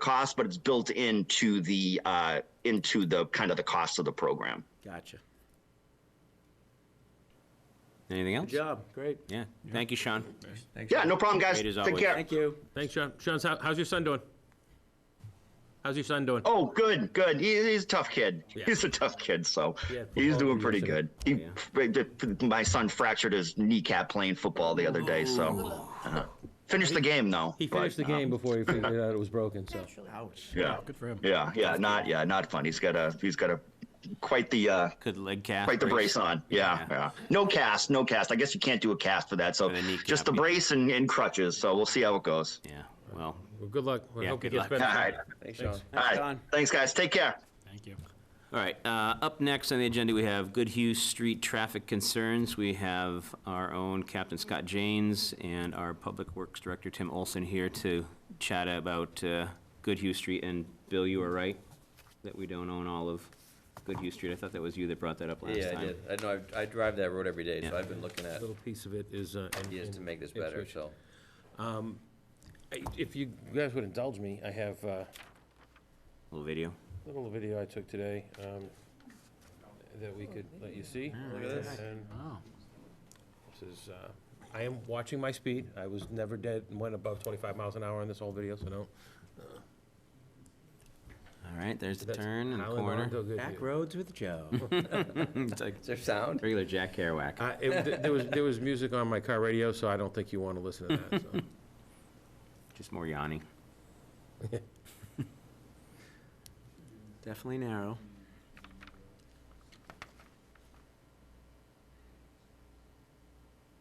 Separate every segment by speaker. Speaker 1: cost, but it's built into the, uh, into the, kind of the cost of the program.
Speaker 2: Gotcha.
Speaker 3: Anything
Speaker 2: Good
Speaker 3: else?
Speaker 2: job. Great.
Speaker 3: Yeah. Thank you, Sean.
Speaker 1: Yeah, no problem, guys.
Speaker 3: Great as
Speaker 1: Take
Speaker 3: always.
Speaker 1: care.
Speaker 2: Thank you.
Speaker 4: Thanks, Sean. Sean, how, how's your son doing? How's your son doing?
Speaker 1: Oh, good, good. He, he's a tough kid.
Speaker 4: Yeah.
Speaker 1: He's a tough kid, so
Speaker 4: Yeah,
Speaker 1: he's
Speaker 4: football,
Speaker 1: doing
Speaker 4: he
Speaker 1: pretty
Speaker 4: is a-
Speaker 1: good. He, My son fractured his kneecap playing football the other day, so uh, finished the game though.
Speaker 4: He
Speaker 1: but,
Speaker 4: finished the
Speaker 1: uh,
Speaker 5: Um,
Speaker 4: game before he figured out it was broken, so.
Speaker 2: Ouch.
Speaker 1: yeah,
Speaker 6: Good for him.
Speaker 1: yeah, yeah. Not yeah, not fun. He's got a he's got a quite the uh,
Speaker 3: Good leg cast.
Speaker 1: quite the brace on. Yeah,
Speaker 3: Yeah.
Speaker 1: yeah. No cast, no cast. I guess you can't do a cast for that. So
Speaker 3: For the kneecap,
Speaker 1: just the
Speaker 3: yeah.
Speaker 1: brace and, and crutches. So we'll see how it goes.
Speaker 3: Yeah. Well,
Speaker 4: Well, good luck. We
Speaker 3: Yeah,
Speaker 4: hope he
Speaker 3: good
Speaker 4: gets
Speaker 3: luck.
Speaker 1: All
Speaker 4: better.
Speaker 1: right,
Speaker 2: Thanks, Sean.
Speaker 1: all right.
Speaker 2: Sean.
Speaker 1: Thanks, guys. Take care.
Speaker 6: Thank you.
Speaker 3: all right. Uh, up next on the agenda, we have Good Hughes Street traffic concerns. We have our own Captain Scott Janes and our Public Works Director Tim Olson here to chat about uh, Good Hughes Street. And Bill, you were right that we don't own all of Good Hughes Street. I thought that was you that brought that up last
Speaker 5: Yeah,
Speaker 3: time.
Speaker 5: I did. I know, I I drive that road every day, so
Speaker 3: Yeah.
Speaker 5: I've been looking at
Speaker 4: Little piece of it is, uh. in-
Speaker 5: ideas to
Speaker 4: in
Speaker 5: make this better,
Speaker 4: Ipswich.
Speaker 5: so.
Speaker 4: I- If you guys would indulge me, I have, uh,
Speaker 3: Little video.
Speaker 4: a little video I took today, um, that we could let you see. Look at this.
Speaker 6: Wow.
Speaker 4: This is, uh, I am watching my speed. I was never dead, went above twenty-five miles an hour on this whole video, so no.
Speaker 3: All right, there's the
Speaker 4: That's
Speaker 3: turn and the
Speaker 4: Highland
Speaker 3: corner.
Speaker 4: Auto Goodyear.
Speaker 2: Back roads with Joe.
Speaker 3: It's like
Speaker 5: Is there sound?
Speaker 3: regular Jack Kerouac.
Speaker 4: Uh, it- th- There was, there was music on my car radio, so I don't think you want to listen to that, so.
Speaker 3: Just more yawning.
Speaker 2: Definitely narrow.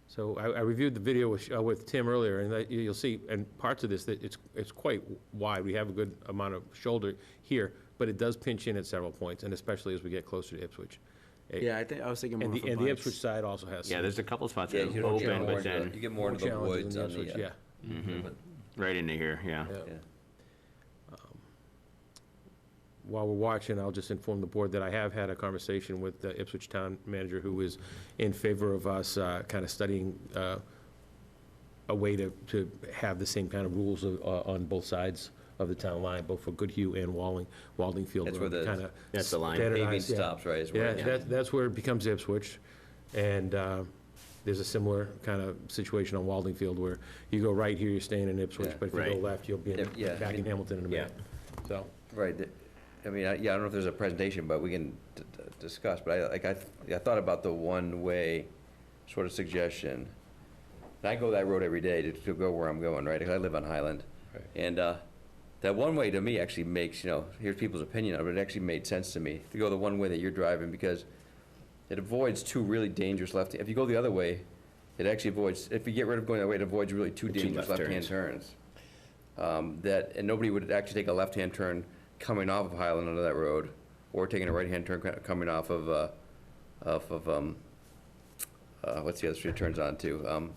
Speaker 4: So I, I reviewed the video with, Sh- uh, with Tim earlier, and that, you- you'll see, and parts of this, that it's, it's quite wide. We have a good amount of shoulder here, but it does pinch in at several points, and especially as we get closer to Ipswich. It-
Speaker 2: Yeah, I think, I was thinking more
Speaker 4: And
Speaker 2: for
Speaker 4: the, and the
Speaker 2: bikes.
Speaker 4: Ipswich side also has.
Speaker 3: Yeah,
Speaker 4: some
Speaker 3: there's a couple spots
Speaker 5: Yeah,
Speaker 3: that
Speaker 5: you
Speaker 3: are
Speaker 5: don't get
Speaker 3: open,
Speaker 5: more
Speaker 3: but
Speaker 5: into the-
Speaker 3: then,
Speaker 5: you get more into the
Speaker 4: challenges in
Speaker 5: woods
Speaker 4: the
Speaker 5: on the.
Speaker 4: Ipswich,
Speaker 5: uh,
Speaker 4: Yeah,
Speaker 5: but-
Speaker 3: right into here, yeah.
Speaker 4: yeah.
Speaker 5: yeah.
Speaker 4: while we're watching, I'll just inform the board that I have had a conversation with the Ipswich Town Manager, who is in favor of us kind of studying uh, a way to, to have the same kind of rules of- uh, on both sides of the town line, both for Goodhue and Walling, Walding Field.
Speaker 5: That's where the-
Speaker 4: kinda
Speaker 3: That's the line.
Speaker 4: standardize,
Speaker 5: Paving
Speaker 4: yeah.
Speaker 5: stops, right, is
Speaker 4: Yeah,
Speaker 5: where,
Speaker 4: that's, that's where it becomes Ipswich, and uh, there's a similar kind of situation on Walding Field where you go right here, you're staying in Ipswich,
Speaker 5: Yeah.
Speaker 4: but if you go
Speaker 3: Right.
Speaker 4: left, you'll be in-
Speaker 5: Yeah, I
Speaker 4: back in
Speaker 5: mean-
Speaker 4: Hamilton in a minute, so.
Speaker 5: right, the- I mean, I- yeah, I don't know if there's a presentation, but we can d- d- discuss, but I, like, I, I thought about the one-way sort of suggestion. And I go that road every day to, to go where I'm going, right, 'cause I live on Highland.
Speaker 4: Right.
Speaker 5: And, uh, that one-way to me actually makes, you know, here's people's opinion of it, it actually made sense to me to go the one way that you're driving, because it avoids two really dangerous left, if you go the other way, it actually avoids, if you get rid of going that way, it avoids really two dangerous
Speaker 3: left
Speaker 5: left-hand turns. Um, That, and nobody would actually take a left-hand turn coming off of Highland onto that road, or taking a right-hand turn co- coming off of, uh, off of, um, uh, what's the other street it turns on to? Um,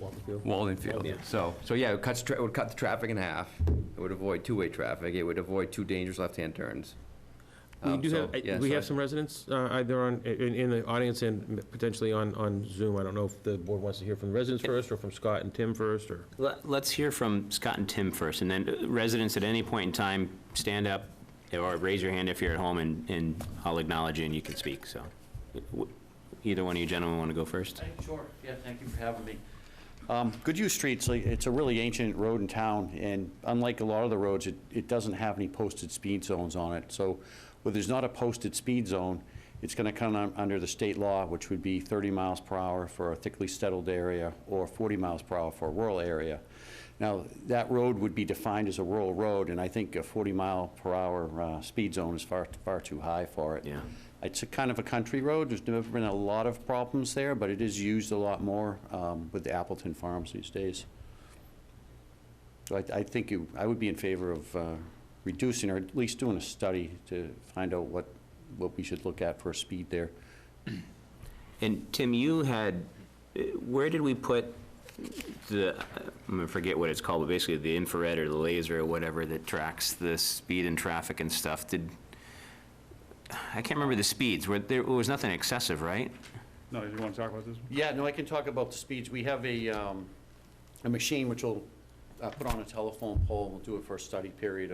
Speaker 4: Walding Field.
Speaker 5: Walden Field. So, so yeah, it cuts, tra- it would cut the traffic in half, it would avoid two-way traffic, it would avoid two dangerous left-hand turns.
Speaker 4: We
Speaker 5: Um,
Speaker 4: do
Speaker 5: so,
Speaker 4: have, I-
Speaker 5: yeah,
Speaker 4: we
Speaker 5: so
Speaker 4: have some residents uh, either on, in, in the audience and potentially on, on Zoom. I don't know if the board wants to hear from the residents first or from Scott and Tim first or.
Speaker 3: Let- Let's hear from Scott and Tim first, and then uh, residents at any point in time, stand up or raise your hand if you're at home, and, and I'll acknowledge you and you can speak, so. W- Either one of you gentlemen want to go first?
Speaker 7: Sure, yeah, thank you for having me. Um, Goodhue Street's, like- it's a really ancient road in town, and unlike a lot of the roads, it, it doesn't have any posted speed zones on it. So where there's not a posted speed zone, it's gonna come un- under the state law, which would be 30 miles per hour for a thickly settled area, or 40 miles per hour for a rural area. Now, that road would be defined as a rural road, and I think a 40 mile per hour uh, speed zone is far, far too high for it.
Speaker 3: Yeah.
Speaker 7: It's a kind of a country road. There's never been a lot of problems there, but it is used a lot more um, with the Appleton Farms these days. So I, I think you, I would be in favor of uh, reducing or at least doing a study to find out what, what we should look at for speed there.
Speaker 3: And Tim, you had, uh, where did we put the, I'm gonna forget what it's called, but basically the infrared or the laser or whatever that tracks the speed and traffic and stuff, did, I can't remember the speeds, where, there was nothing excessive, right?
Speaker 6: No, you want to talk about this?
Speaker 7: Yeah, no, I can talk about the speeds. We have a, um, a machine which will uh, put on a telephone pole. We'll do it for a study period